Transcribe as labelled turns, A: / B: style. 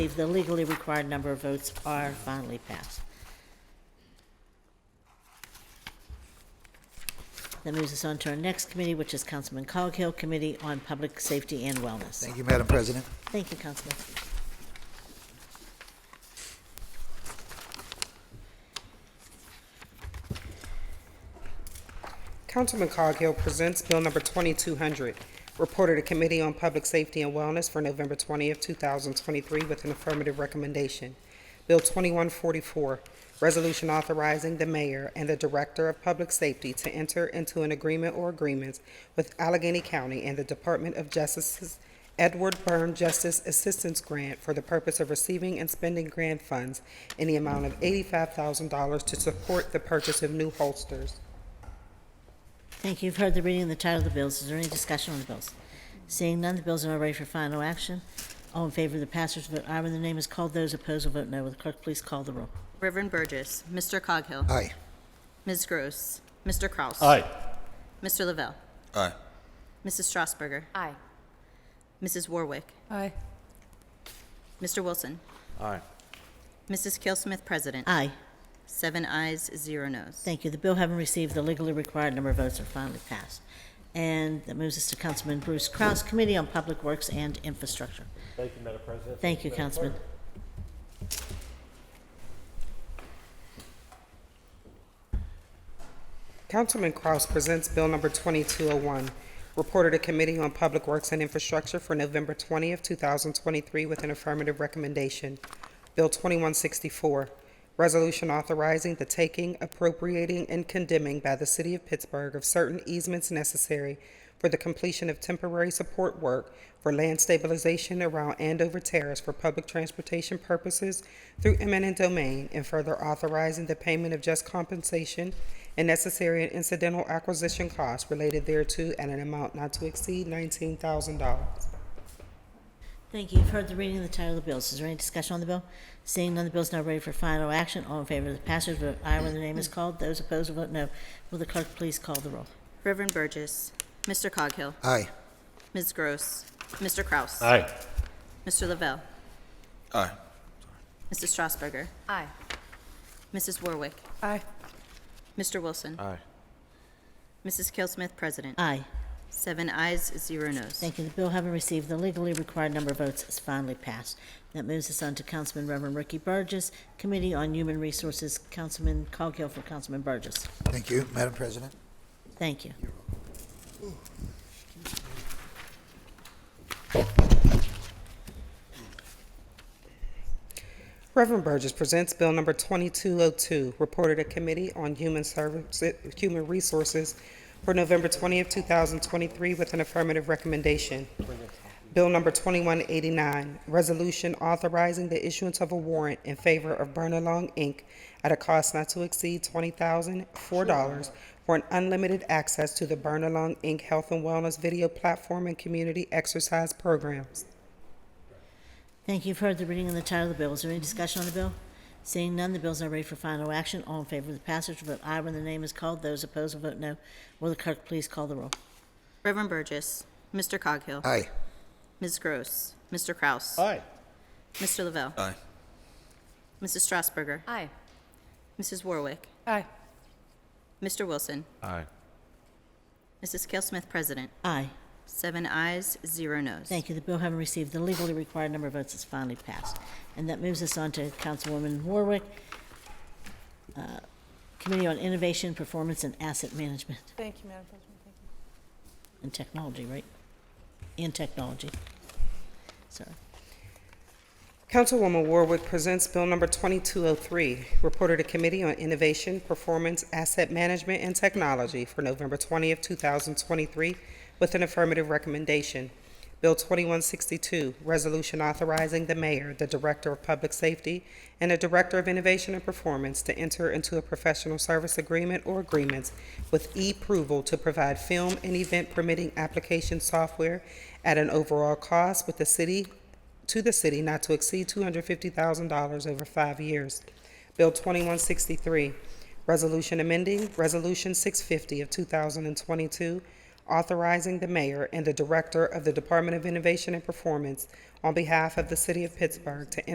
A: believe the legally required number of votes are finally passed. That moves us on to our next committee, which is Councilman Coghill Committee on Public Safety and Wellness.
B: Thank you, Madam President.
A: Thank you, Councilman.
C: Councilman Coghill presents Bill Number 2200, reported to Committee on Public Safety and Wellness for November 20th, 2023, with an affirmative recommendation. Bill 2144, resolution authorizing the mayor and the director of public safety to enter into an agreement or agreements with Allegheny County and the Department of Justice's Edward Byrne Justice Assistance Grant for the purpose of receiving and spending grant funds in the amount of $85,000 to support the purchase of new holsters.
A: Thank you. You've heard the reading of the title of the bills. Is there any discussion on the bills? Seeing none, the bills are now ready for final action. All in favor of the passage, vote aye when the name is called. Those opposed will vote no. Will the clerk please call the roll?
D: Reverend Burgess, Mr. Coghill,
B: Aye.
D: Ms. Gross, Mr. Kraus.
E: Aye.
D: Mr. Lavelle,
E: Aye.
D: Mrs. Strasburger,
F: Aye.
D: Mrs. Warwick,
F: Aye.
D: Mr. Wilson,
E: Aye.
D: Mrs. Kelsmith, President.
A: Aye.
D: Seven ayes, zero noes.
A: Thank you. The bill having received the legally required number of votes are finally passed. And that moves us to Councilman Bruce Kraus, Committee on Public Works and Infrastructure.
E: Thank you, Madam President.
A: Thank you, Councilman.
C: Councilman Kraus presents Bill Number 2201, reported to Committee on Public Works and Infrastructure for November 20th, 2023, with an affirmative recommendation. Bill 2164, resolution authorizing the taking, appropriating, and condemning by the City of Pittsburgh of certain easements necessary for the completion of temporary support work for land stabilization around Andover Terrace for public transportation purposes through eminent domain, and further authorizing the payment of just compensation and necessary and incidental acquisition costs related thereto at an amount not to exceed nineteen thousand dollars.
A: Thank you. You've heard the reading of the title of the bills. Is there any discussion on the bill? Seeing none, the bill is now ready for final action. All in favor of the passage, vote aye when the name is called. Those opposed will vote no. Will the clerk please call the roll?
D: Reverend Burgess, Mr. Coghill,
B: Aye.
D: Ms. Gross, Mr. Kraus.
E: Aye.
D: Mr. Lavelle,
E: Aye.
D: Mrs. Strasburger,
F: Aye.
D: Mrs. Warwick,
F: Aye.
D: Mr. Wilson,
E: Aye.
D: Mrs. Kelsmith, President.
A: Aye.
D: Seven ayes, zero noes.
A: Thank you. The bill having received the legally required number of votes is finally passed. That moves us on to Councilman Reverend Ricky Burgess, Committee on Human Resources, Councilman Coghill for Councilman Burgess.
B: Thank you, Madam President.
A: Thank you.
C: Reverend Burgess presents Bill Number 2202, reported to Committee on Human Services, Human Resources for November 20th, 2023, with an affirmative recommendation. Bill Number 2189, resolution authorizing the issuance of a warrant in favor of Bernalong, Inc. at a cost not to exceed $20,004 for an unlimited access to the Bernalong, Inc. Health and Wellness Video Platform and Community Exercise Programs.
A: Thank you. You've heard the reading and the title of the bill. Is there any discussion on the bill? Seeing none, the bill is now ready for final action. All in favor of the passage, vote aye when the name is called. Those opposed will vote no. Will the clerk please call the roll?
D: Reverend Burgess, Mr. Coghill,
B: Aye.
D: Ms. Gross, Mr. Kraus.
E: Aye.
D: Mr. Lavelle,
E: Aye.
D: Mrs. Strasburger,
F: Aye.
D: Mrs. Warwick,
F: Aye.
D: Mr. Wilson,
E: Aye.
D: Mrs. Kelsmith, President.
A: Aye.
D: Seven ayes, zero noes.
A: Thank you. The bill having received the legally required number of votes is finally passed. And that moves us on to Councilwoman Warwick, uh, Committee on Innovation, Performance, and Asset Management
F: Thank you, Madam President. Thank you.
A: and Technology, right? And Technology. Sorry.
C: Councilwoman Warwick presents Bill Number 2203, reported to Committee on Innovation, Performance, Asset Management, and Technology for November 20th, 2023, with an affirmative recommendation. Bill 2162, resolution authorizing the mayor, the director of public safety, and the director of innovation and performance to enter into a professional service agreement or agreements with e-approval to provide film and event permitting application software at an overall cost with the city to the city not to exceed $250,000 over five years. Bill 2163, Resolution amending Resolution 650 of 2022, authorizing the mayor and the director of the Department of Innovation and Performance on behalf of the city of Pittsburgh to